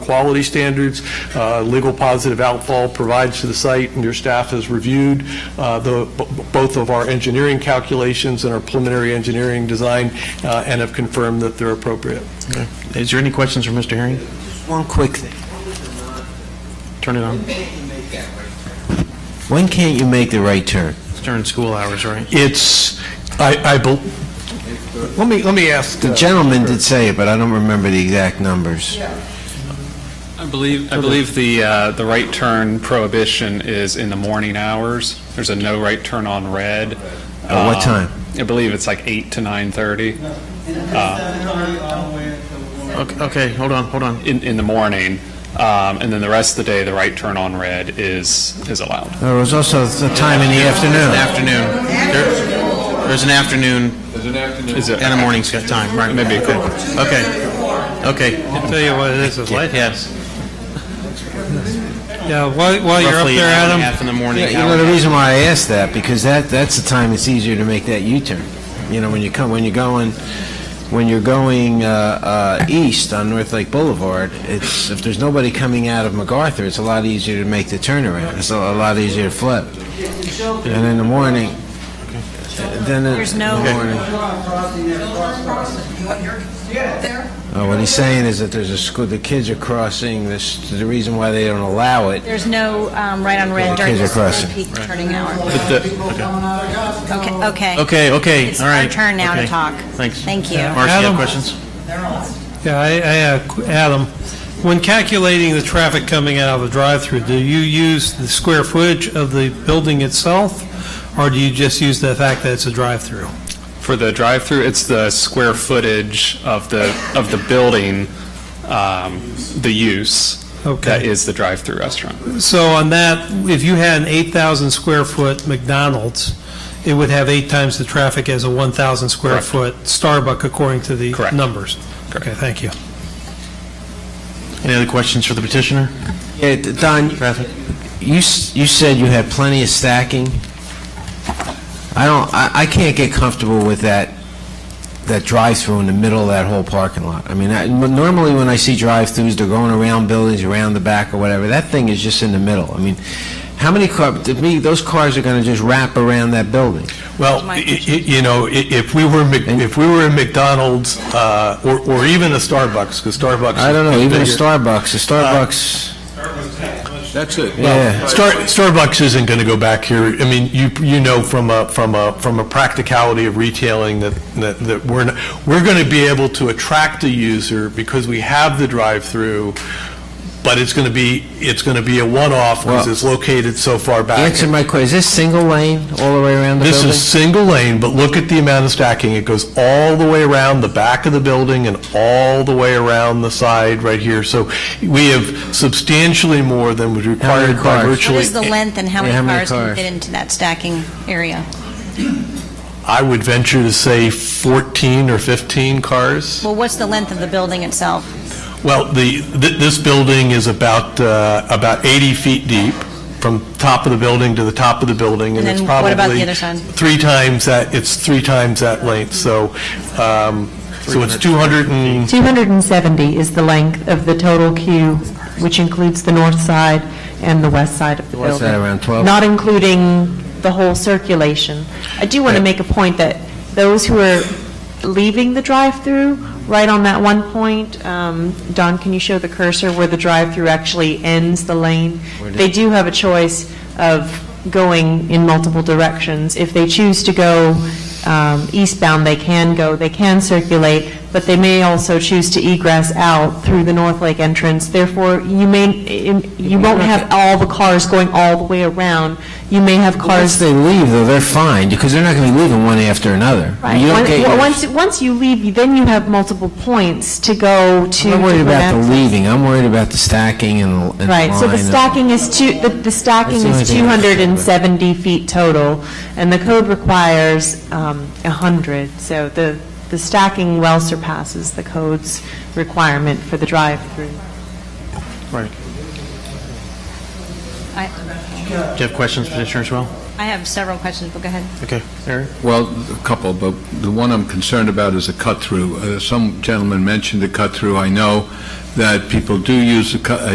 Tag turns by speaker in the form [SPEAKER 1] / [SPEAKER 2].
[SPEAKER 1] quality standards. Uh, Legal positive outfall provides to the site, and your staff has reviewed uh, the, b- both of our engineering calculations and our preliminary engineering design, uh, and have confirmed that they're appropriate.
[SPEAKER 2] Is there any questions for Mr. Herring?
[SPEAKER 3] One quick thing.
[SPEAKER 2] Turn it on.
[SPEAKER 3] When can't you make the right turn?
[SPEAKER 2] It's during school hours, right?
[SPEAKER 1] It's, I, I, bel- let me, let me ask.
[SPEAKER 3] The
[SPEAKER 1] uh,
[SPEAKER 3] gentleman did say it, but I don't remember the exact numbers.
[SPEAKER 4] I believe, I believe the, uh, the right turn prohibition is in the morning hours. There's a no right turn on red.
[SPEAKER 3] At what
[SPEAKER 4] Um,
[SPEAKER 3] time?
[SPEAKER 4] I believe it's like 8 to 9:30
[SPEAKER 2] Okay, okay, hold on, hold on.
[SPEAKER 4] in, in the morning. Um, And then the rest of the day, the right turn on red is, is allowed.
[SPEAKER 3] There was also the time in the
[SPEAKER 2] An
[SPEAKER 3] afternoon.
[SPEAKER 2] afternoon. There- There's an afternoon
[SPEAKER 4] Is it?
[SPEAKER 2] and a morning sc- time, right?
[SPEAKER 4] Maybe it could.
[SPEAKER 2] Okay, okay. I'll tell you what it is, it's
[SPEAKER 5] light
[SPEAKER 2] Yes.
[SPEAKER 5] Yeah, while, while you're up
[SPEAKER 2] Roughly
[SPEAKER 5] there,
[SPEAKER 2] hour and a
[SPEAKER 5] Adam,
[SPEAKER 2] half in the morning,
[SPEAKER 3] Yeah, You
[SPEAKER 2] hour
[SPEAKER 3] know,
[SPEAKER 2] and a
[SPEAKER 3] the
[SPEAKER 2] half.
[SPEAKER 3] reason why I asked that, because that, that's the time it's easier to make that U-turn. You know, when you come, when you're going, when you're going uh, uh, east on North Lake Boulevard, it's, if there's nobody coming out of MacArthur, it's a lot easier to make the turnaround. It's a a lot easier to flip. And in the morning, then in
[SPEAKER 6] There's
[SPEAKER 3] in
[SPEAKER 6] no-
[SPEAKER 3] the morning... Uh, What he's saying is that there's a school, the kids are crossing, this, the reason why they don't allow it,
[SPEAKER 6] There's no um, right on red
[SPEAKER 3] the
[SPEAKER 6] during
[SPEAKER 3] kids
[SPEAKER 6] the
[SPEAKER 3] are
[SPEAKER 6] school
[SPEAKER 3] crossing.
[SPEAKER 6] peak turning hour. Okay, okay.
[SPEAKER 2] Okay, okay,
[SPEAKER 6] It's
[SPEAKER 2] all right.
[SPEAKER 6] our turn now to
[SPEAKER 2] Okay.
[SPEAKER 6] talk.
[SPEAKER 2] Thanks.
[SPEAKER 6] Thank you.
[SPEAKER 2] Marcy, you have
[SPEAKER 5] Adam?
[SPEAKER 2] questions?
[SPEAKER 5] yeah, I, I, uh, qu- Adam, when calculating the traffic coming out of a drive-through, do you use the square footage of the building itself, or do you just use the fact that it's a drive-through?
[SPEAKER 4] For the drive-through, it's the square footage of the, of the building, um, the use. That
[SPEAKER 5] Okay.
[SPEAKER 4] is the drive-through restaurant.
[SPEAKER 5] So on that, if you had an 8,000 square foot McDonald's, it would have eight times the traffic as a 1,000 square
[SPEAKER 4] Correct.
[SPEAKER 5] foot Starbucks, according to the
[SPEAKER 4] Correct.
[SPEAKER 5] numbers. Okay, thank you.
[SPEAKER 2] Any other questions for the petitioner?
[SPEAKER 3] Yeah, d- Don, you, s- you said you had plenty of stacking. I don't, I, I can't get comfortable with that, that drive-through in the middle of that whole parking lot. I mean, I- n- normally when I see drive-throughs, they're going around buildings, around the back or whatever. That thing is just in the middle. I mean, how many car, to me, those cars are gonna just wrap around that building.
[SPEAKER 1] Well,
[SPEAKER 6] My
[SPEAKER 1] i- i-
[SPEAKER 6] question.
[SPEAKER 1] you know, i- if we were, Mc- if we were in McDonald's, uh, or or even a Starbucks, because Starbucks...
[SPEAKER 3] I don't know,
[SPEAKER 1] is
[SPEAKER 3] even a
[SPEAKER 1] bigger.
[SPEAKER 3] Starbucks, a Starbucks,
[SPEAKER 7] That's it.
[SPEAKER 3] yeah.
[SPEAKER 1] Star- Starbucks isn't going to go back here. I mean, you, you know from a, from a, from a practicality of retailing that, that, that we're, not- we're going to be able to attract the user because we have the drive-through, but it's going to be, it's going to be a one-off because
[SPEAKER 3] Well-
[SPEAKER 1] it's located so far back.
[SPEAKER 3] Answer my question, is this single lane all the way around the
[SPEAKER 1] This
[SPEAKER 3] building?
[SPEAKER 1] is single lane, but look at the amount of stacking. It goes all the way around the back of the building and all the way around the side right here. So we have substantially more than was required by
[SPEAKER 3] cars?
[SPEAKER 1] virtually...
[SPEAKER 6] What is the length and how
[SPEAKER 3] Yeah, how many
[SPEAKER 6] many cars can
[SPEAKER 3] cars?
[SPEAKER 6] fit into that stacking area?
[SPEAKER 1] I would venture to say 14 or 15 cars.
[SPEAKER 6] Well, what's the length of the building itself?
[SPEAKER 1] Well, the, th- this building is about, uh, about 80 feet deep, from top of the building to the top of the building, and
[SPEAKER 6] And
[SPEAKER 1] it's
[SPEAKER 6] then what
[SPEAKER 1] probably...
[SPEAKER 6] about the other side?
[SPEAKER 1] Three times that, it's three times that length, so, um, so it's 200 and,
[SPEAKER 8] 270 is the length of the total queue, which includes the north side and the west side of the
[SPEAKER 3] West
[SPEAKER 8] building.
[SPEAKER 3] side around 12.
[SPEAKER 8] Not including the whole circulation. I do want to make a point that those who are leaving the drive-through, right on that one point, um, Don, can you show the cursor where the drive-through actually ends the lane? They do have a choice of going in multiple directions. If they choose to go um, eastbound, they can go, they can circulate, but they may also choose to egress out through the North Lake entrance. Therefore, you may, you won't have all the cars going all the way around. You may have
[SPEAKER 3] Once
[SPEAKER 8] cars
[SPEAKER 3] they leave, though, they're fine, because they're not going to be leaving one after another.
[SPEAKER 8] Right.
[SPEAKER 3] You don't
[SPEAKER 8] Once-
[SPEAKER 3] get your-
[SPEAKER 8] Once, once you leave, then you have multiple points to go to.
[SPEAKER 3] I'm not worried
[SPEAKER 8] different
[SPEAKER 3] about the
[SPEAKER 8] exits.
[SPEAKER 3] leaving, I'm worried about the stacking and and the line.
[SPEAKER 8] Right, so the
[SPEAKER 3] and-
[SPEAKER 8] stacking is two, the- the
[SPEAKER 3] That's
[SPEAKER 8] stacking
[SPEAKER 3] the only
[SPEAKER 8] is
[SPEAKER 3] thing I was concerned about.
[SPEAKER 8] 270 feet total, and the code requires um, 100, so the, the stacking well surpasses the code's requirement for the drive-through.
[SPEAKER 6] I
[SPEAKER 2] Do you have questions, petitioner, as well?
[SPEAKER 6] I have several questions, but go ahead.
[SPEAKER 2] Okay, Eric?
[SPEAKER 7] Well, a couple, but the one I'm concerned about is the cut-through. Uh, Some gentleman mentioned the cut-through, I know, that people do use the, co-